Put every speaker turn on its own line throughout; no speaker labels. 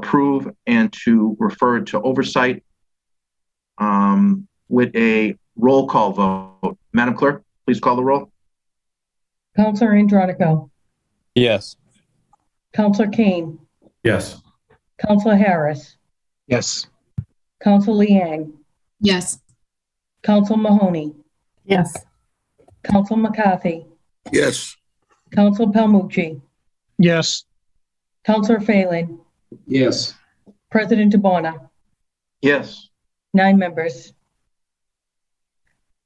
approve and to refer to oversight um, with a roll call vote. Madam Clerk, please call the roll.
Counselor Andronico,
Yes.
Counselor Kane,
Yes.
Counselor Harris,
Yes.
Counselor Liang,
Yes.
Counselor Mahoney,
Yes.
Counselor McCarthy,
yes,
Counselor Palmucci,
Yes.
Counselor Phelan,
Yes.
President DeBona,
Yes,
nine members.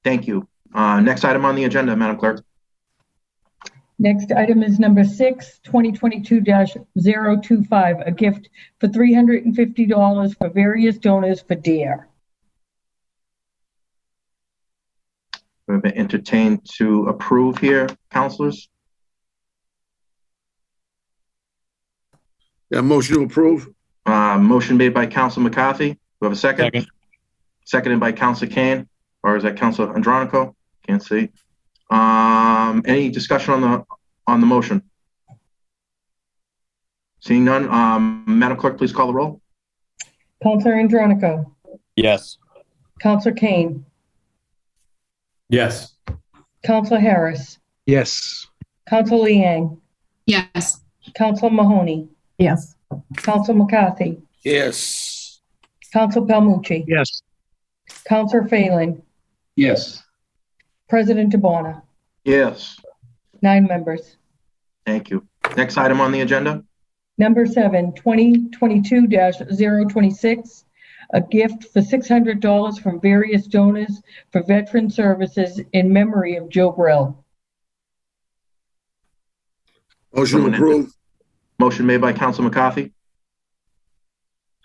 thank you. Uh, next item on the agenda, Madam Clerk.
Next item is number six, 2022-025, a gift for $350 for various donors for deer.
We've been entertained to approve here, counselors.
yeah, motion to approve,
Uh, motion made by Counsel McCarthy. Do we have a second?
Second.
Seconded by Counsel Kane, or is that Counsel Andronico? Can't see. Um, any discussion on the, on the motion? Seeing none, um, Madam Clerk, please call the roll.
Counselor Andronico,
Yes.
Counselor Kane,
Yes.
Counselor Harris,
Yes.
Counselor Liang,
Yes.
Counselor Mahoney,
Yes.
Counselor McCarthy,
yes,
Counselor Palmucci,
Yes.
Counselor Phelan,
Yes.
President DeBona,
Yes,
nine members.
thank you. Next item on the agenda?
Number seven, 2022-026, a gift for $600 from various donors for veteran services in memory of Joe Brill.
motion to approve,
Motion made by Counsel McCarthy. Do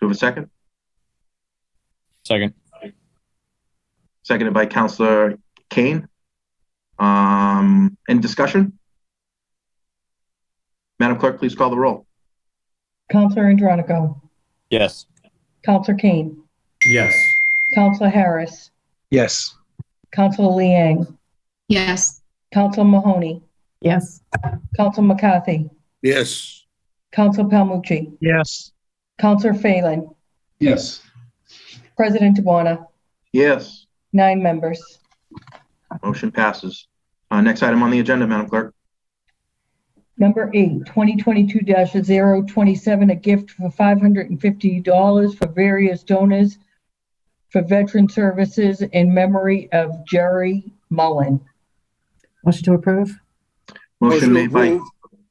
we have a second?
Second.
Seconded by Counselor Kane. Um, any discussion? Madam Clerk, please call the roll.
Counselor Andronico,
Yes.
Counselor Kane,
Yes.
Counselor Harris,
Yes.
Counselor Liang,
Yes.
Counselor Mahoney,
Yes.
Counselor McCarthy,
yes,
Counselor Palmucci,
Yes.
Counselor Phelan,
Yes.
President DeBona,
Yes,
nine members.
motion passes. Uh, next item on the agenda, Madam Clerk.
Number eight, 2022-027, a gift for $550 for various donors for veteran services in memory of Jerry Mullen.
Motion to approve?
Motion
motion to
made by
approve,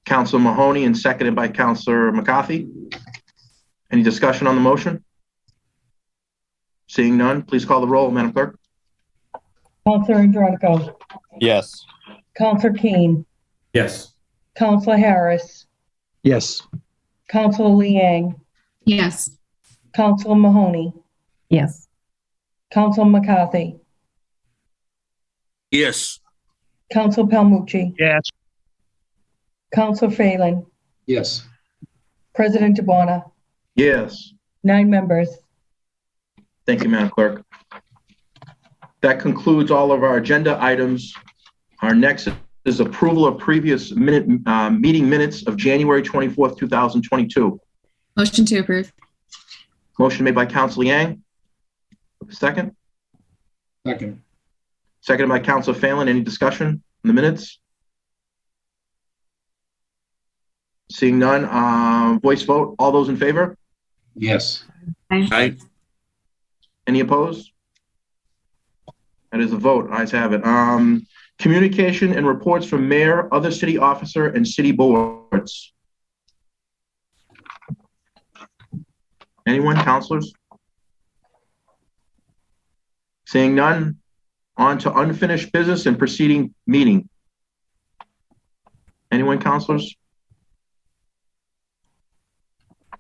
Counsel Mahoney and seconded by Counselor McCarthy. Any discussion on the motion? Seeing none, please call the roll, Madam Clerk.
Counselor Andronico,
Yes.
Counselor Kane,
Yes.
Counselor Harris,
Yes.
Counselor Liang,
Yes.
Counselor Mahoney,
Yes.
Counselor McCarthy,
yes,
Counselor Palmucci,
Yes.
Counselor Phelan,
Yes.
President DeBona,
Yes,
nine members.
Thank you, Madam Clerk. That concludes all of our agenda items. Our next is approval of previous minute, uh, meeting minutes of January 24th, 2022.
Motion to approve.
Motion made by Counsel Yang. Second,
Second.
seconded by Counsel Phelan. Any discussion in the minutes? Seeing none, uh, voice vote. All those in favor?
Yes.
aye,
Any opposed? That is a vote. Eyes have it. Um, communication and reports from mayor, other city officer, and city boards. Anyone, counselors? Seeing none, on to unfinished business and proceeding meeting. Anyone, counselors?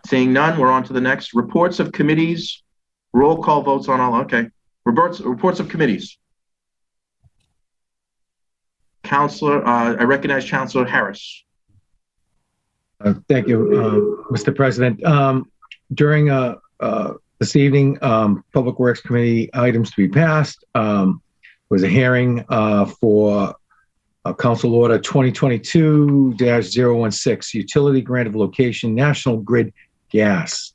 Seeing none, we're on to the next. Reports of committees, Roll call votes on all, okay. Reports, reports of committees. Counselor, uh, I recognize Counselor Harris.
Uh, Thank you, uh, Mr. President. Um, During uh, uh, this evening, um, Public Works Committee items to be passed um, was a hearing uh, for uh, Council Order 2022-016, Utility Grant of Location, National Grid Gas.